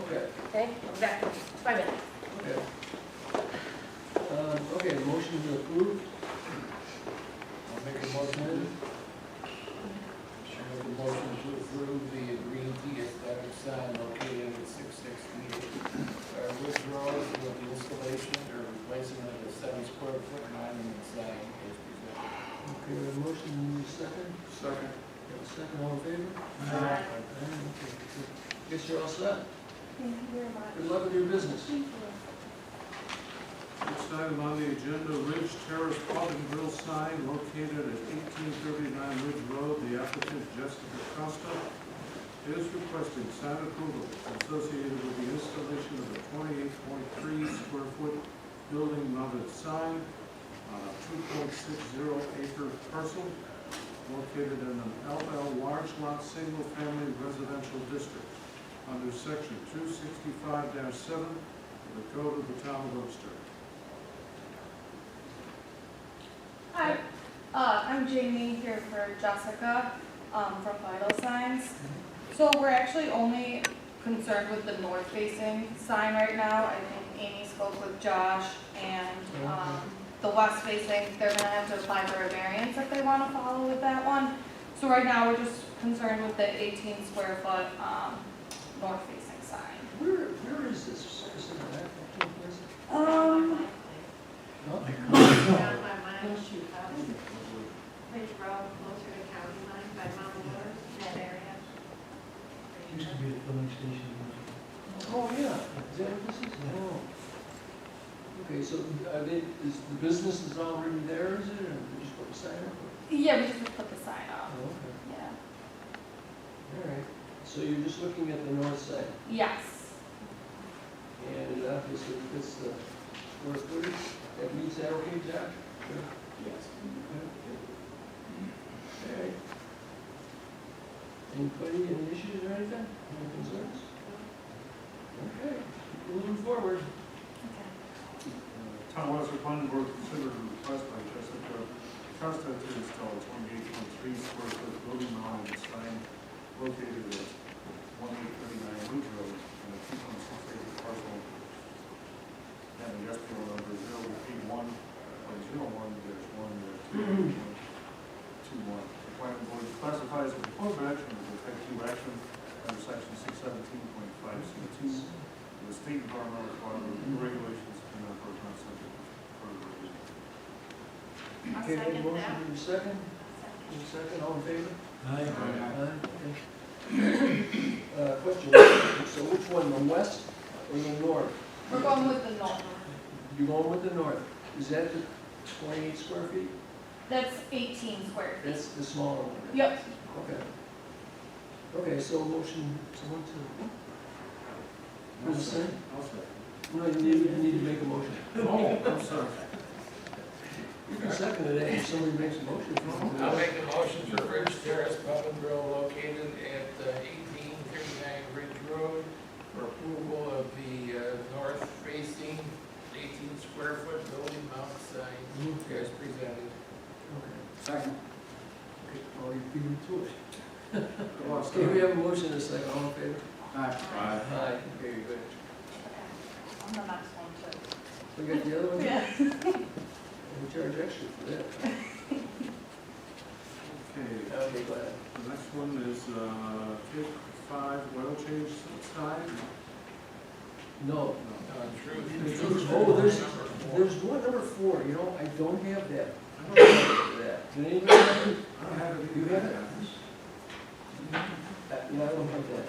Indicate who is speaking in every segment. Speaker 1: Okay, exactly, five minutes.
Speaker 2: Okay. Um, Okay, motion to approve. I'll make a motion. I'll make a motion to approve the green tea aesthetic sign located at six sixty-eight Sharpwood Road with the installation or replacing of the seven square foot monument sign as presented.
Speaker 3: Okay, we have a motion, we need a second.
Speaker 2: Second.
Speaker 3: We have a second, all in favor?
Speaker 1: Aye. Aye.
Speaker 3: Aye, okay, good. Guess you're all set.
Speaker 4: Thank you very much.
Speaker 3: Good luck with your business.
Speaker 4: Thank you.
Speaker 5: Next item on the agenda, Ridge Terrace Pub and Grill sign located at eighteen thirty-nine Ridge Road. The applicant Jessica Costa is requesting sign approval associated with the installation of a twenty-eight point three square foot building mounted sign on a two point six zero acre parcel located in an LL large lot, single family residential district under section two sixty-five seven of the Code of the Town of Webster. Uh,
Speaker 4: Hi, uh, I'm Jamie here for Jessica, um, from Vital Signs. So we're actually only concerned with the north facing sign right now. I think Amy spoke with Josh and, um, the west facing, they're gonna have to apply for a variance if they wanna follow with that one. So right now, we're just concerned with the eighteen square foot, um, north facing sign.
Speaker 3: Where, where is this? Is it back up to the place?
Speaker 4: Um,
Speaker 3: No?
Speaker 6: down by Mile Shoe House, Ridge Road, closer to county line, by Mount Waters, that area.
Speaker 7: Used to be a filling station.
Speaker 3: Oh, yeah, is that what this is? Oh. Okay, so are they, is, the business is already there, is it, or they just put a sign up?
Speaker 4: yeah, we just put the sign
Speaker 3: Oh,
Speaker 4: up,
Speaker 3: okay,
Speaker 4: yeah.
Speaker 3: all right. So you're just looking at the north side,
Speaker 4: Yes.
Speaker 3: and uh, it obviously fits the square footage, that meets that, okay, Josh?
Speaker 2: Yes.
Speaker 3: Okay. Anybody, any issues or anything, any concerns? Okay, moving forward.
Speaker 4: Okay.
Speaker 5: Town of Webster Planning Board considered a request by Jessica Costa to install twenty-eight point three square foot building monument sign located at one eight thirty-nine Ridge Road in a two point six acre parcel. And the SPO number zero eight one uh, point zero one dash one dash two point two one. The planning board classifies the proposed action as effective action under section six seventeen point five C two the state environmental quality regulations do not prohibit subject to further review.
Speaker 6: I'll
Speaker 3: Okay,
Speaker 6: second
Speaker 3: motion
Speaker 6: that.
Speaker 3: in a second, in a second, all in favor?
Speaker 7: Aye.
Speaker 3: Aye, okay. Uh, question, so which one, the west or the north?
Speaker 4: We're going with the north.
Speaker 3: You're going with the north, is that the twenty-eight square feet?
Speaker 4: That's eighteen square feet.
Speaker 3: That's the smaller one?
Speaker 4: Yep.
Speaker 3: Okay. Okay, so motion, someone to, Who's saying?
Speaker 5: I'll say.
Speaker 3: no, you need, you need to make a motion.
Speaker 5: Oh, I'm sorry.
Speaker 3: You can second it eh, if somebody makes a motion.
Speaker 2: I'll make a motion for Ridge Terrace Pub and Grill located at uh, eighteen thirty-nine Ridge Road for approval of the uh, north facing eighteen square foot building mount sign
Speaker 3: Mhm.
Speaker 2: as presented.
Speaker 3: Okay.
Speaker 5: Second.
Speaker 3: Okay, Well, you're beating to it.
Speaker 5: Good luck,
Speaker 3: Okay, we
Speaker 5: sir.
Speaker 3: have a motion and a second, all in favor?
Speaker 5: Aye.
Speaker 3: Aye. Very good.
Speaker 4: Okay. On the next one
Speaker 3: We got the other one?
Speaker 4: too. Yeah.
Speaker 3: We charge extra for that.
Speaker 5: Okay,
Speaker 3: Okay, go ahead.
Speaker 5: the next one is, uh, Cape five oil change sign.
Speaker 3: No,
Speaker 5: No.
Speaker 2: Uh, Drew-
Speaker 3: Drew's-
Speaker 2: Drew's
Speaker 3: oh, there's-
Speaker 2: number four.
Speaker 3: there's one number four, you know, I don't have that.
Speaker 5: I don't
Speaker 3: for that. Did anybody have it?
Speaker 5: I don't have it.
Speaker 3: You have it? Uh, Yeah, I don't have that.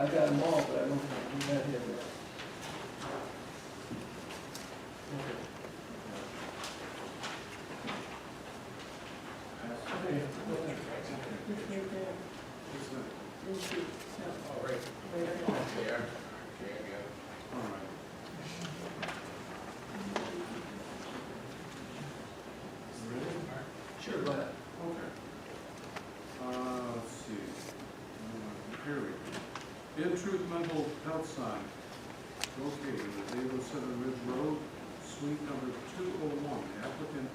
Speaker 3: I've got them all, but I don't have, do not have that. Okay.
Speaker 5: Okay. It's not-
Speaker 2: All right. Yeah, yeah, yeah.
Speaker 5: All right. Ready?
Speaker 3: Sure, go ahead.
Speaker 5: Okay. Uh, let's see. Uh, Here we go. In Truth Mental Health Sign, located at eight oh seven Ridge Road, suite number two oh one. The applicant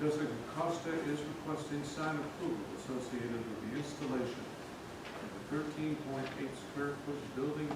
Speaker 5: Jessica Costa is requesting sign approval associated with the installation of a thirteen point eight square foot building